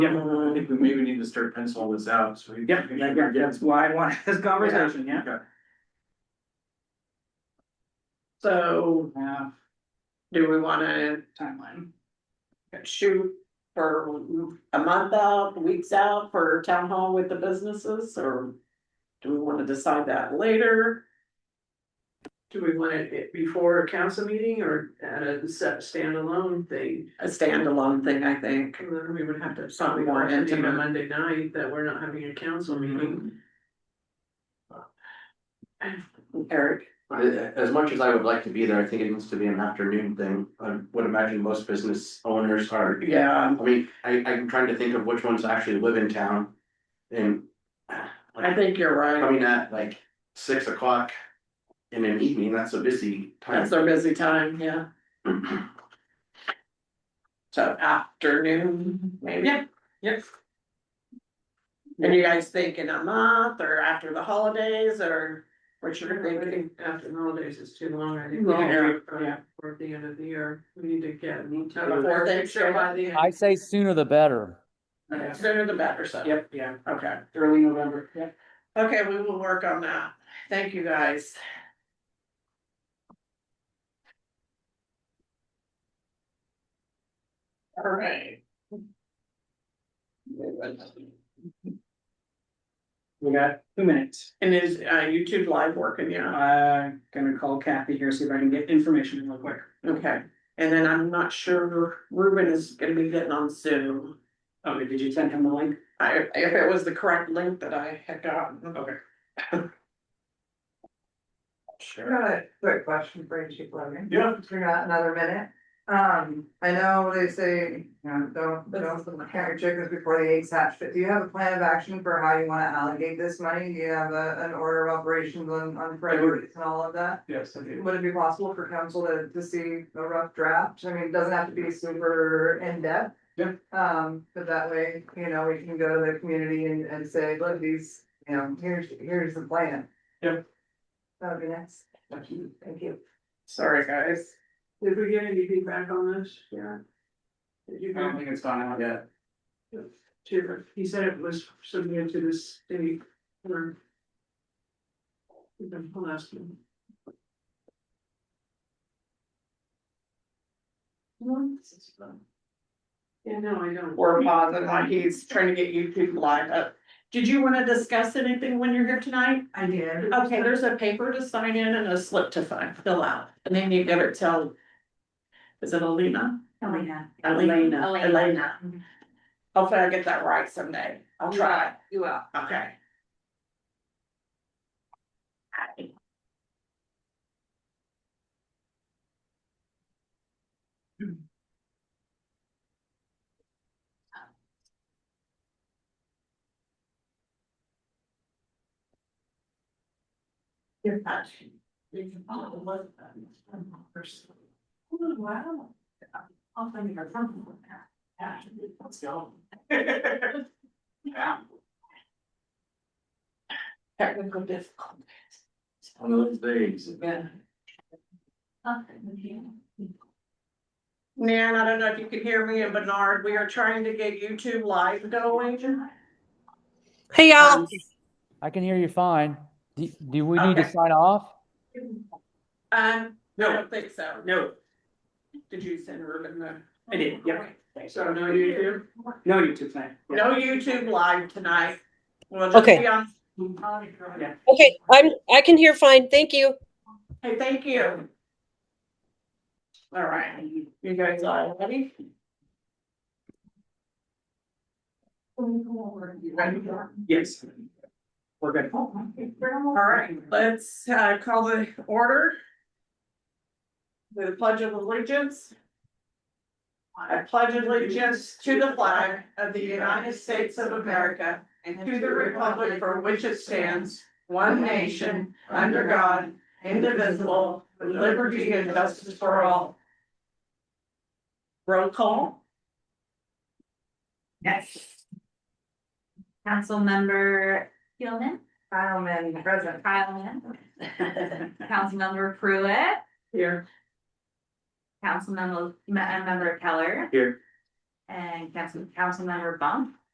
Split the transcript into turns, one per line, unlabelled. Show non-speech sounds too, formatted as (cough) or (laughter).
I think we maybe need to start penciling this out, so. we-
Yep, yeah, yeah, that's why I wanted this conversation, yeah.
Okay.
So
Yeah,
do we wanna
Uh, timeline.
shoot for a month out, weeks out for town hall with the businesses, or? Do we wanna decide that later?
Do we want it before a council meeting or at a set standalone thing?
A standalone thing, I think.
And then we would have to
Something
probably
more
watch it on
intimate. Mm-hmm.
a Monday night that we're not having a council meeting.
Eric,
As much as I would like to be there, I think it needs to be an afternoon thing. I would imagine most business owners are,
yeah,
I mean, I I'm trying to think of which ones actually live in town. And
I think you're right,
coming at like six o'clock in an evening, that's a busy time.
that's their busy time, yeah, so afternoon, maybe.
Yeah, yep.
And you guys thinking a month or after the holidays or what you're
I
thinking?
think After the holidays is too long, I think.
Long, yeah,
yeah.
For the end of the year, we need to get.
Before Thanksgiving.
By the end.
I say sooner the better.
Yeah.
Sooner the better, so.
Yep, yeah,
Okay,
early November, yep.
okay, we will work on that. Thank you, guys. All right.
We got two minutes.
And is uh YouTube live working, yeah?
Uh, gonna call Kathy here, see if I can get information real quick.
Okay, and then I'm not sure Ruben is gonna be getting on Zoom.
Okay, did you send him the link?
I, if it was the correct link that I had gotten.
Okay.
I got a quick question for you, Chief Logan.
Yeah.
Since we got another minute. Um, I know they say, you know, don't, don't count your chickens before the eggs hatch, but do you have a plan of action for how you wanna allocate this money? Do you have a, an order of operations on, on priorities and all of that?
Yes, I do.
Would it be possible for council to, to see a rough draft? I mean, it doesn't have to be super in-depth.
Yeah.
Um, but that way, you know, we can go to the community and, and say, look, these, you know, here's, here's the plan.
Yeah.
That would be nice. Thank you.
Sorry, guys.
Did we get any feedback on this? Yeah. Did you
I
Uh,
don't
get,
think it's gone out yet.
to- he said it was submitted to the state or. The last one. Yeah, no, I don't.
We're pausing, like he's trying to get YouTube live up. Did you wanna discuss anything when you're here tonight?
I did.
Okay, there's a paper to sign in and a slip to sign, fill out, and then you gotta tell. Is it Alina?
Elena.
Elena,
Elena.
Elena. Hopefully I get that right someday. I'll try.
You will.
Okay.
You're touching. Oh, wow. I'll find your phone.
(laughs)
Let's go. (laughs)
Technical difficulties.
One of those days.
Yeah. Nan, I don't know if you can hear me and Bernard, we are trying to get YouTube live going.
Hey
Um,
y'all,
I can hear you fine. Do, do we need to
Okay.
sign off?
Um, I
No,
don't think so.
no,
Did you send Ruben the?
I did, yep.
So no, you do?
No YouTube thing. Yeah.
No YouTube live tonight. We'll just be
Okay.
on-
okay, I'm, I can hear fine, thank you.
Hey, thank you. All right, you guys all ready?
Yes. We're good.
All right, let's uh call the order. The pledge of allegiance. I pledge allegiance to the flag of the United States of America and to the republic for which it stands, one nation, under God, indivisible, with liberty and justice for all. Roll call?
Yes. Councilmember Hillman,
Fileman present.
Kyleman, Councilmember Pruitt,
Here.
Councilmember, Ma- uh, Member Keller.
Here.
and Council, Councilmember Bump.